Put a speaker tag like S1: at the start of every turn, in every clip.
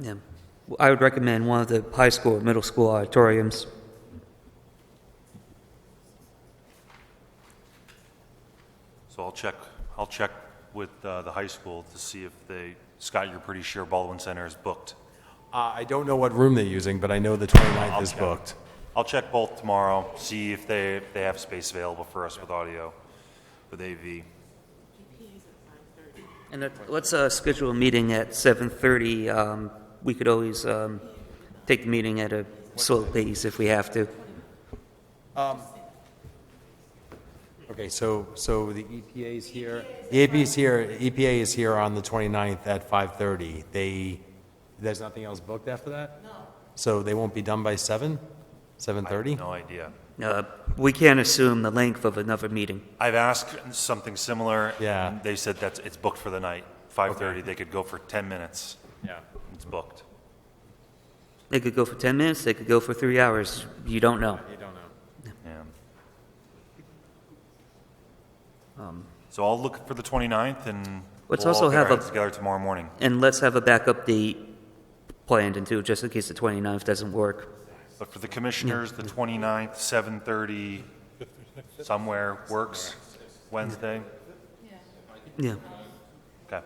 S1: Yeah. I would recommend one of the high school or middle school auditoriums.
S2: So I'll check, I'll check with uh, the high school to see if they, Scott, you're pretty sure Baldwin Center is booked.
S3: Uh, I don't know what room they're using, but I know the 29th is
S2: check.
S3: booked.
S2: I'll check both tomorrow, see if they, if they have space available for us with audio, with AV.
S1: And let- let's uh, schedule a meeting at 7:30. Um, We could always um, take the meeting at a slow pace if we have to.
S3: Okay, so, so the EPA is here, the EPA E is here, EPA is here on the 29th at 5:30. They, there's nothing else booked after that? No. So they won't be done by 7, 7:30?
S2: No idea.
S1: Uh, We can't assume the length of another meeting.
S2: I've asked something similar.
S3: Yeah.
S2: and They said that's, it's booked for the night, 5:30, they could go for 10 minutes,
S3: Yeah.
S2: it's booked.
S1: They could go for 10 minutes, they could go for three hours. You don't know.
S3: You don't know.
S2: Yeah. So I'll look for the 29th and
S1: Um. Let's
S2: we'll all
S1: also
S2: get our
S1: have a-
S2: heads together tomorrow morning.
S1: And let's have a backup date planned into, just in case the 29th doesn't work.
S2: But for the commissioners, the 29th, 7:30, somewhere works, Wednesday?
S1: Yeah.
S2: Okay.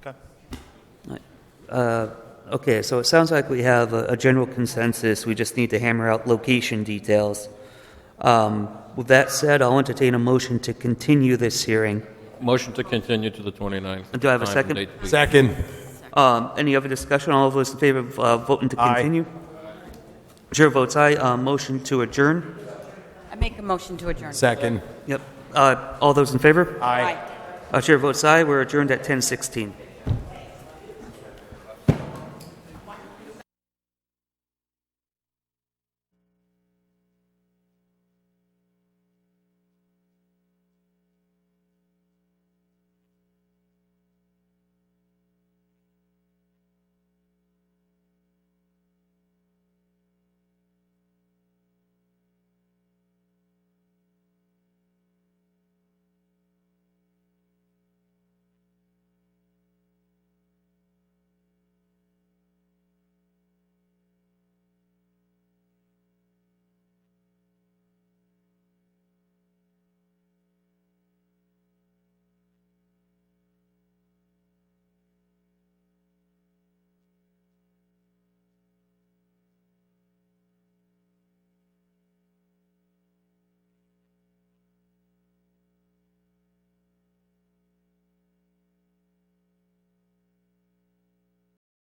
S2: Okay.
S1: Right. Uh, Okay, so it sounds like we have a a general consensus, we just need to hammer out location details. Um, With that said, I'll entertain a motion to continue this hearing.
S4: Motion to continue to the 29th.
S1: Do I have a
S4: Time and
S1: second?
S4: date, please.
S3: Second.
S1: Um, Any other discussion, all those in favor of uh, voting to
S3: Aye.
S1: continue? Chair votes aye, Uh, motion to adjourn.
S5: I make a motion to adjourn.
S3: Second.
S1: Yep, Uh, all those in favor?
S3: Aye.
S5: Aye.
S1: Uh, Chair votes aye, we're adjourned at 10:16.